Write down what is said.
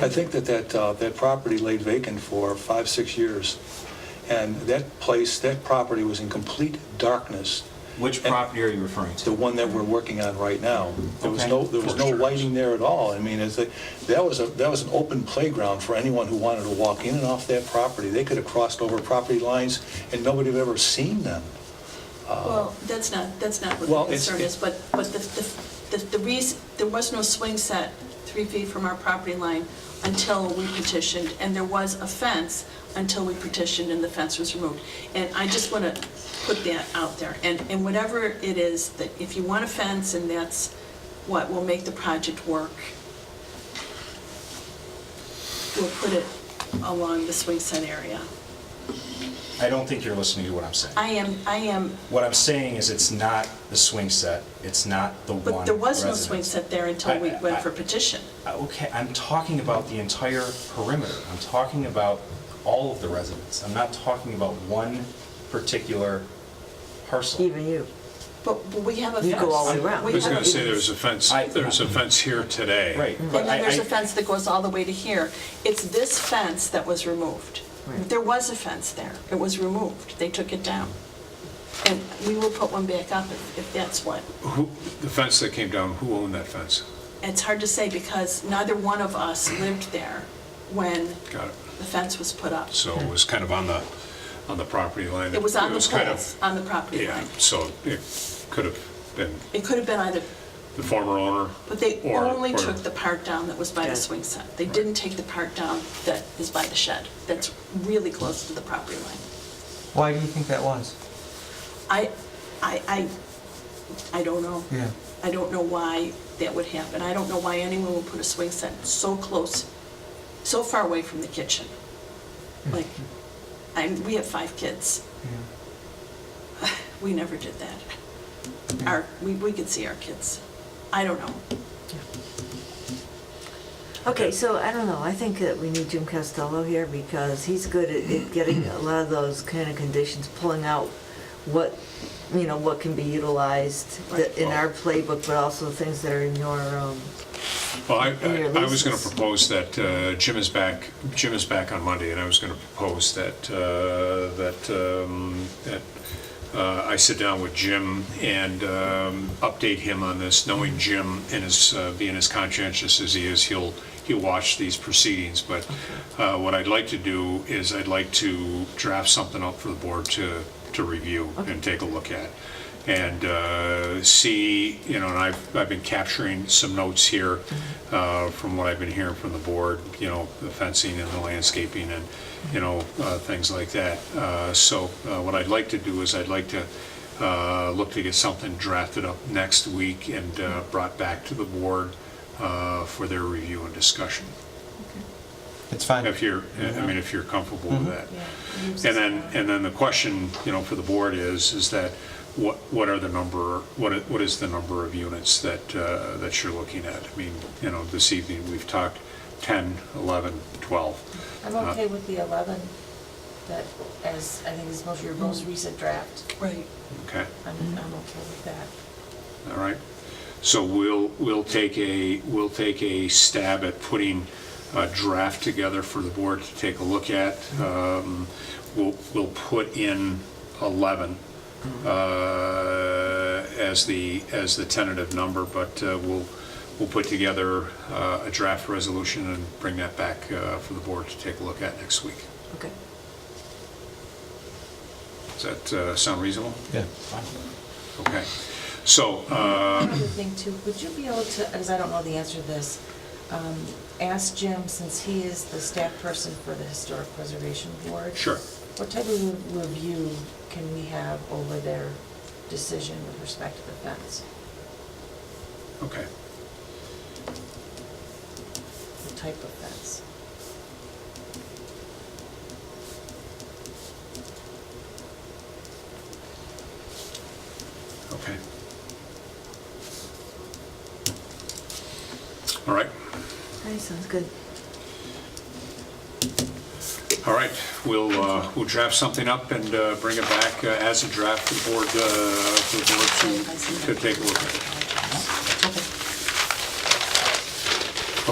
I think that that, uh, that property laid vacant for five, six years, and that place, that property was in complete darkness, Which property are you referring the to? one that we're working on right now. There was Okay. no, there was no lighting there at all. I mean, it's, a- that was, a that was an open playground for anyone who wanted to walk in and off that property. They could have crossed over property lines, and nobody would have ever seen them. Well, that's not, that's not Well, what the it's- concern is, but, but the, the, the- the reason, there was no swing set three feet from our property line until we petitioned, and there was a fence until we petitioned and the fence was removed. And I just want to put that out there, and, and whatever it is, that if you want a fence and that's what will make the project work, we'll put it along the swing set area. I don't think you're listening to what I'm saying. I am, I am What I'm saying is it's not the swing set, it's not the one But there was no residence. swing set there until we I- I- went for petition. Okay, I'm talking about the entire perimeter. I'm talking about all of the residents. I'm not talking about one particular parcel. Even you. But but we have a fence. You go all the way around. We Who's have- going to say there's a fence, I- there's a fence here today? Right. And but then I- there's I- a fence that goes all the way to here. It's this fence that was removed. Right. There was a fence there. It was removed. They took it down. And we will put one back up if, if that's what. Who, the fence that came down, who owned that fence? It's hard to say because neither one of us lived there when Got it. the fence was put up. So it was kind of on the, on the property line. It was on the kind poles, of- on the property Yeah, line. so it could have been It could have been either the former owner. But they or- only or- took the part down that was by the Good. swing set. They didn't take the part down that is by the shed, that's really close to the property line. Why do you think that was? I, I, I, I don't know. Yeah. I don't know why that would happen. I don't know why anyone would put a swing set so close, so far away from the kitchen. Like, I'm, we have five kids. Yeah. We never did that. Our, we, we could see our kids. I don't know. Okay, so I don't know, I think that we need Jim Costello here because he's good at at getting a lot of those kind of conditions, pulling out what, you know, what can be utilized that- in our playbook, but also things that are in your, um, Well, I, And your I- I was going to leases. propose that uh, Jim is back, Jim is back on Monday, and I was going to propose that, uh, that, um, that uh, I sit down with Jim and um, update him on this, knowing Jim and his, uh, being as conscientious as he is, he'll, he'll watch these proceedings, but uh, what I'd like to do is I'd like to draft something up for the board to, to review and take a look at and uh, see, you know, and I've, I've been capturing some notes here uh, from what I've been hearing from the board, you know, the fencing and the landscaping and, you know, uh, things like that. Uh, So uh, what I'd like to do is I'd like to uh, look to get something drafted up next week and uh, brought back to the board uh, for their review and discussion. It's fine. If you're, I mean, if you're comfortable with that. And then, and then the question, you know, for the board is, is that what, what are the number, what, i- what is the number of units that, uh, that you're looking at? I mean, you know, this evening, we've talked 10, 11, 12. I'm okay with the 11, that, as, I think is most, your most recent draft. Right. Okay, I'm, I'm okay with that. all right. So we'll, we'll take a, we'll take a stab at putting a draft together for the board to take a look at. Um, We'll, we'll put in 11 uh, as the, as the tentative number, but uh, we'll, we'll put together uh, a draft resolution and bring that back uh, for the board to take a look at next week. okay. Does that uh, sound reasonable? Yeah. Okay. So, uh, Another thing too, would you be able to, because I don't know the answer to this, um, ask Jim, since he is the staff person for the Historic Preservation Board? Sure. What type of re- review can we have over their decision with respect to the fence? okay. The type of fence? Okay. All right, That sounds good. all right, we'll, uh, we'll draft something up and uh, bring it back uh, as a draft to the board, uh, for the board to, to take a look at.